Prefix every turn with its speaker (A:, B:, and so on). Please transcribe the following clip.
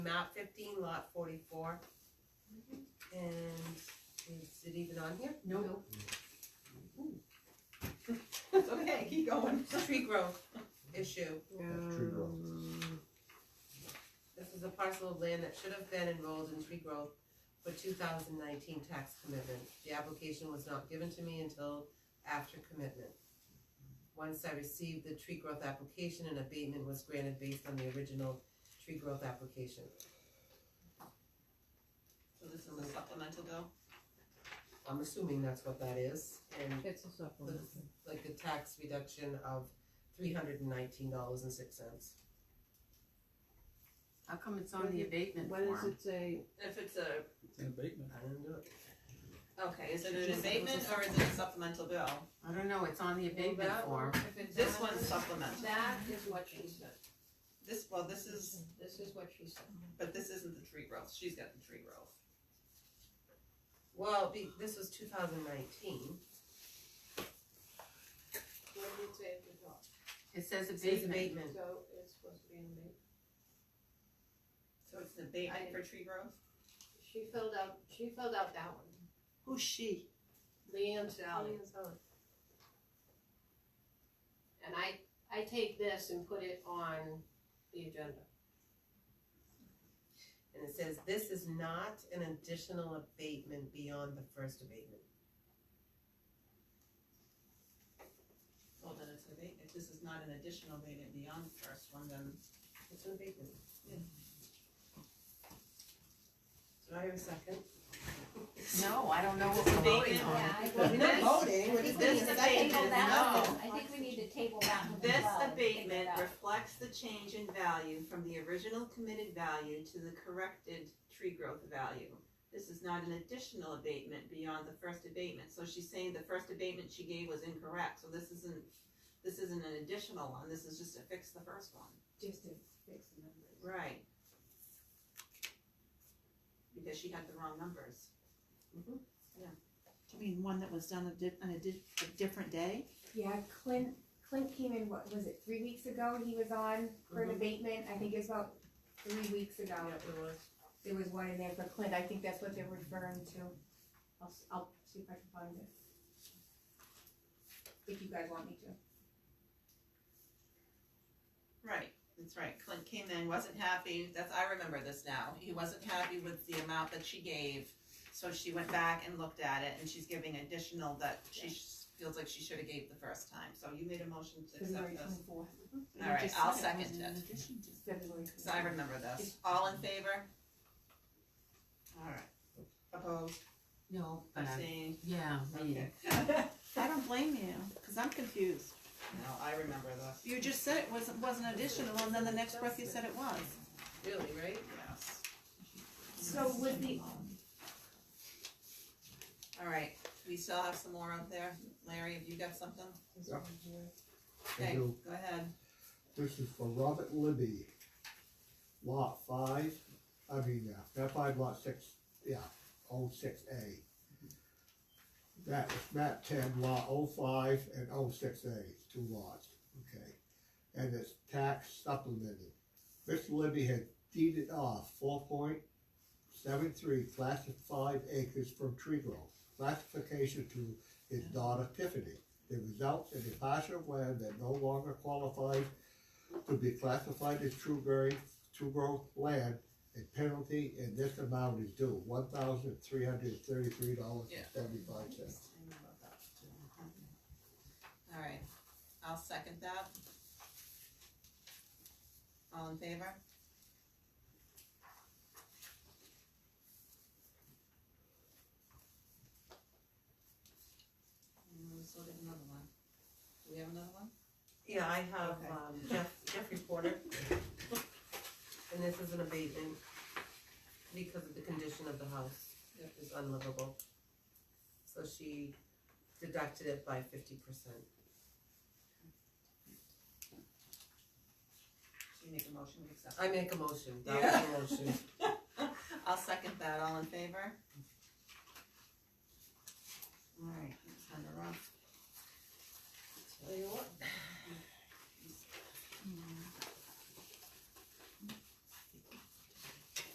A: map fifteen lot forty-four. And is it even on here?
B: Nope.
C: It's okay, keep going.
A: Tree growth issue.
D: That's tree growth.
A: This is a parcel of land that should have been enrolled in tree growth for two thousand nineteen tax commitment. The application was not given to me until after commitment. Once I received the tree growth application, an abatement was granted based on the original tree growth application.
C: So this is a supplemental bill?
A: I'm assuming that's what that is, and
B: It's a supplement.
A: like the tax reduction of three hundred and nineteen dollars and six cents.
E: How come it's on the abatement
B: What does
E: form?
B: it say?
C: If it's a,
F: It's an abatement.
A: I didn't do it.
C: okay, is it
E: Just-
C: an abatement or is it a supplemental bill?
E: I don't know, it's on the abatement
B: Well, that-
E: form.
B: if it's
C: This
B: on-
C: one's supplemental.
B: That is what she said.
C: This, well, this is,
B: This is what she said.
C: but this isn't the tree growth, she's got the tree growth.
A: Well, be, this was two thousand nineteen,
B: What did it say at the top?
E: It says
A: it says
E: abatement.
A: abatement,
B: So it's supposed to be in the,
C: So it's an abatement for tree growth?
B: she filled out, she filled out that one.
E: Who's she?
B: Leanne Sally. And I, I take this and put it on the agenda.
A: and it says, this is not an additional abatement beyond the first abatement.
C: Well, then it's an abatement, if this is not an additional abatement beyond the first one, then
A: It's an abatement.
C: Yeah.
A: Do I hear a second?
E: No, I don't know what we're voting
C: Abatement.
E: on.
G: I
A: We're
G: think
A: not
G: we eh?
A: voting, we're
G: need
A: just,
G: to
A: this
C: This
A: abatement
G: table
A: is
G: that
A: nothing.
G: one. I think we need to table that one. as
C: This
G: well and figure it
C: abatement
G: out.
C: reflects the change in value from the original committed value to the corrected tree growth value. This is not an additional abatement beyond the first abatement, so she's saying the first abatement she gave was incorrect, so this isn't, this isn't an additional one, this is just to fix the first one.
B: Just to fix the numbers.
C: Right. Because she had the wrong numbers.
B: Mm-hmm.
H: Do you mean one that was done a di- on a di- a different day?
G: Yeah, Clint, Clint came in, what was it, three weeks ago, he was on for an
A: Mhm.
G: abatement, I think it was about three weeks ago.
A: Yeah, it was.
G: There was one in there for Clint, I think that's what they're referring to, I'll, s- I'll see if I can find it. If you guys want me to.
C: Right, that's right. Clint came in, wasn't happy. That's I remember this now. He wasn't happy with the amount that she gave, so she went back and looked at it, and she's giving additional that she sh- feels like she should have gave the first time. So you made a motion to accept
G: February
C: this.
G: twenty-fourth,
H: You
C: All right,
H: just
C: I'll
H: said it was
C: second
H: in
C: it.
H: addition to-
G: February
C: So I remember this. All in favor? All right. Opposed?
E: No, but I,
C: Abstained?
E: yeah, me.
C: Okay.
H: I don't blame you, cause I'm confused.
C: No, I remember this.
H: You just said it wasn't, wasn't additional, and then the next breath you said it was.
A: Really, right?
C: Yes.
G: So was the,
C: All right, we still have some more out there. Larry, have you got something?
D: Yeah.
C: Okay,
D: do.
C: go ahead.
D: This is for Robert Libby. Lot five, I mean, uh, not five, lot six, yeah, oh six A. That is map ten, lot oh five and oh six A, two lots, okay? And it's tax supplemented. Mr. Libby had deeded off four point seven three classified acres from tree growth. Classification to his daughter Tiffany. The results in a parcel of land that no longer qualifies to be classified as true growth, true growth land, a penalty in this amount is due, one thousand three hundred thirty-three dollars and seventy-five cents.
C: All right, I'll second that. All in favor? And we still get another one. Do we have another one?
A: Yeah, I have,
C: Okay.
A: um, Jeff, Jeffrey Porter. And this is an abatement because of the condition of the house, it is unlivable. So she deducted it by fifty percent.
C: Should we make a motion to accept?
A: I make a motion, that was a motion.
C: I'll second that, all in favor? Alright, let's send her off. Tell you what,